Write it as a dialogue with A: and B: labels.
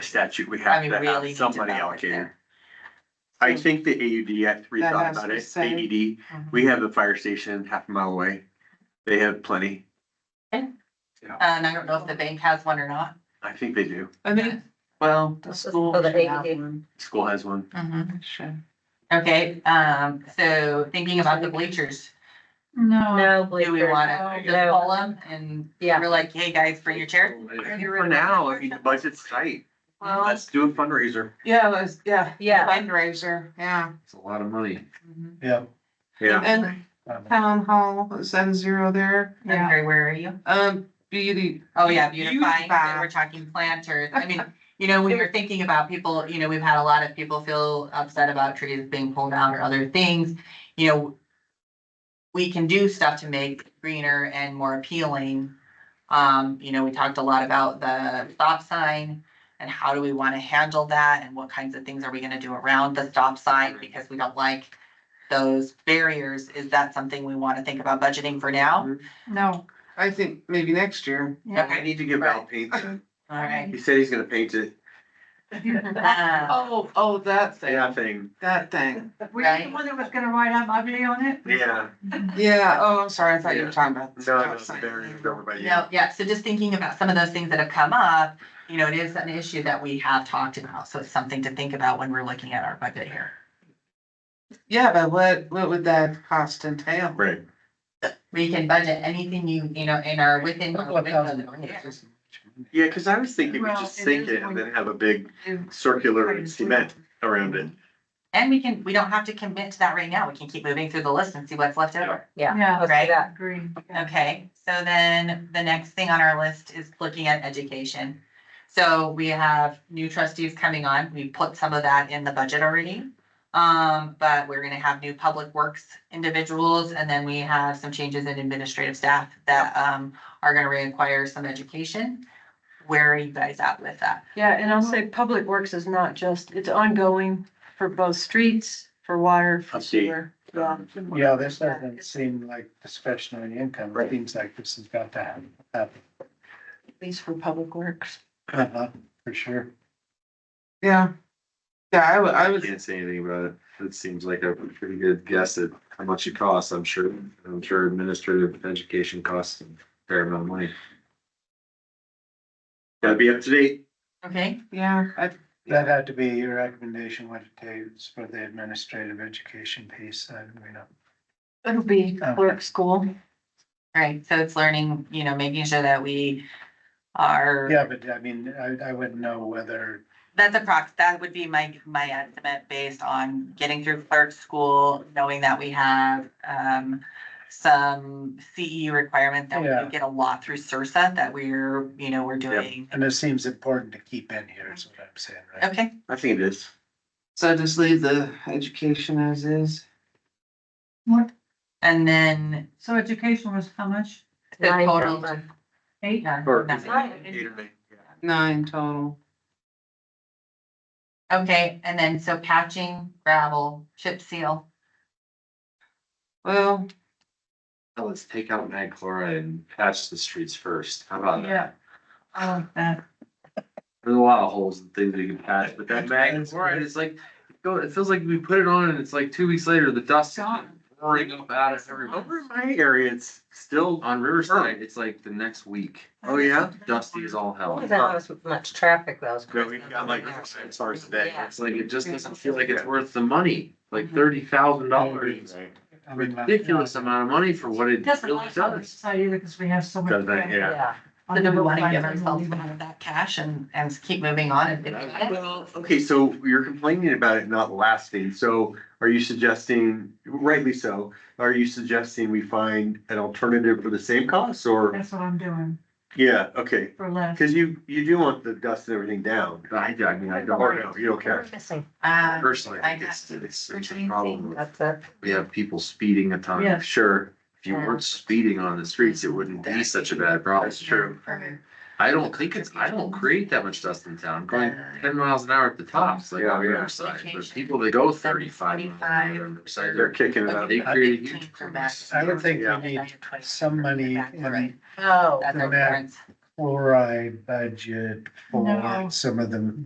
A: statute, we
B: I
A: have
B: mean,
A: to
B: really
A: have
B: need to
A: somebody
B: know it
A: allocated.
B: there.
A: I think the AUD, I
C: That
A: rethought
C: has to
A: about
C: be
A: it,
C: said.
A: AED,
B: Mhm.
A: we have the fire station half a mile away. They have plenty.
B: And Um, I don't know if the bank has one or not.
A: I think they do.
C: I think, well, the school
D: Oh, the
C: should have
D: AED.
C: one.
A: School has one.
D: Mm-hmm.
B: Mhm.
C: Should.
B: Okay, um, so thinking about the bleachers,
C: No.
D: No,
B: do we
D: bleachers.
E: Oh,
B: wanna just
D: No.
B: call them and
D: Yeah.
B: we're like, hey, guys, bring your chair?
A: For now, I mean, the budget's tight.
D: Well,
A: Let's do a fundraiser.
C: Yeah, that's, yeah,
D: yeah,
C: fundraiser, yeah.
A: It's a lot of money.
C: Mhm.
F: Yeah.
A: Yeah.
C: And town hall, seven zero there,
B: And Harry, where are you?
C: um, beauty.
B: Oh, yeah, beautifying,
C: Beautify.
B: and we're talking planters, I mean, you know, when you're thinking about people, you know, we've had a lot of people feel upset about trees being pulled down or other things, you know. We can do stuff to make greener and more appealing. Um, you know, we talked a lot about the stop sign and how do we wanna handle that and what kinds of things are we gonna do around the stop sign because we don't like. Those barriers, is that something we wanna think about budgeting for now?
C: No. I think maybe next year.
A: I need to give Al paint. it.
B: Alright.
A: He said he's gonna paint it.
C: Oh, oh, that
A: Yeah,
C: thing,
A: thing.
C: that thing,
E: Were you the one that was gonna write I'm ugly on it?
A: Yeah.
C: yeah, oh, I'm sorry, I thought you
A: Yeah.
C: were talking about. the
A: No, it's
C: stop sign.
A: very, everybody.
B: No, yeah, so just thinking about some of those things that have come up, you know, it is an issue that we have talked about, so it's something to think about when we're looking at our budget here.
C: Yeah, but what, what would that cost entail?
A: Right.
B: We can budget anything you, you know, in our within. our window.
A: Yeah, cause I was thinking we
E: Well,
A: just
E: it
A: sink
E: is
A: it and
E: going-
A: then have a big circular cement around it.
B: And we can, we don't have to commit to that right now, we can keep moving through the list and see what's left over.
E: Yeah.
D: let's
B: Right.
D: do that.
E: Agree.
B: Okay, so then the next thing on our list is looking at education. So we have new trustees coming on. We put some of that in the budget already. Um, but we're gonna have new public works individuals and then we have some changes in administrative staff that um are gonna require some education. Where are you guys at with that?
E: Yeah, and I'll say Public Works is not just, it's ongoing for both streets, for water, for
A: I see.
E: sewer. Yeah.
F: Yeah, this doesn't seem like discretionary income. It seems like this has got to happen, happen,
E: At least for Public Works.
F: Uh-huh, for sure.
C: Yeah. Yeah, I would, I would
G: Can't say anything about it. It seems like a pretty good guess at how much it costs, I'm sure. I'm sure administrative education costs a fair amount of money.
A: Gotta be up to date.
B: Okay,
C: Yeah, I,
F: That had to be your recommendation, what it takes for the administrative education piece, I mean, uh,
E: It'll be
F: Okay.
E: clerk school.
B: right, so it's learning, you know, making sure that we are.
F: yeah, but I mean, I, I wouldn't know whether,
B: That's a prox, that would be my, my estimate based on getting through clerk school, knowing that we have, um, some CE requirement that we
F: Yeah.
B: get a lot through CERSA that we're, you know, we're doing.
F: and it seems important to keep in here, is what I'm saying, right?
B: Okay,
A: I think it is.
C: so just leave the education as is.
E: What?
B: and then
E: So education was how much?
B: the
D: Nine
B: total.
D: thousand.
E: Eight?
B: yeah,
A: Or-
B: nothing.
A: Eight or nine, yeah.
C: Nine total.
B: Okay, and then so patching, gravel, chip seal,
C: Well,
G: Now Let's take out mag chloride and patch the streets first. How about that?
E: Yeah. I like that.
G: There's a lot of holes and things we can patch, but that mag chloride is like, go, it feels like we put it on and it's like two weeks later, the dust is
E: Gone.
G: pouring up out of everywhere.
A: Over in my area, it's still,
G: On Riverside, it's like the next week.
A: Oh, yeah?
G: Dusty as all hell.
D: That was much traffic those.
A: no, we've got like six hours a day.
D: Yeah.
G: It's like, it just doesn't feel like it's worth the money,
E: Mm-hmm.
G: like thirty thousand dollars.
F: I mean, my-
G: Ridiculous amount of money for what it
E: Doesn't
G: really
E: like
G: does.
E: Riverside either because we have so much.
A: Doesn't, yeah.
D: Yeah,
B: so do we want to give ourselves some of that cash and, and keep moving on and.
A: Well, okay, so you're complaining about it not lasting, so are you suggesting, rightly so, are you suggesting we find an alternative for the same cost or?
E: That's what I'm doing
A: Yeah, okay,
E: for less.
A: cause you, you do want the dust and everything down.
G: I, I mean, I
A: Or
G: don't,
A: no, you don't care.
D: we're missing,
B: Uh,
G: personally, I think
B: I
G: it's, it's it's a
D: Routine
G: problem. with-
D: that's it.
G: We have people speeding a ton.
E: Yes.
G: Sure, if you weren't speeding on the streets, it wouldn't be such a bad problem.
A: That's true.
G: I don't think it's, I don't create that much dust in town, going ten miles an hour at the tops, like
A: Yeah,
G: on
A: yeah.
G: Riverside. There's people that go thirty-five. miles an hour on
B: 25.
G: Riverside.
A: They're kicking it up.
G: They create a huge.
F: I would think
A: Yeah.
F: we need some money in
D: Oh.
B: That's our
F: Matt.
B: parents.
F: chloride budget
E: No.
F: for some of the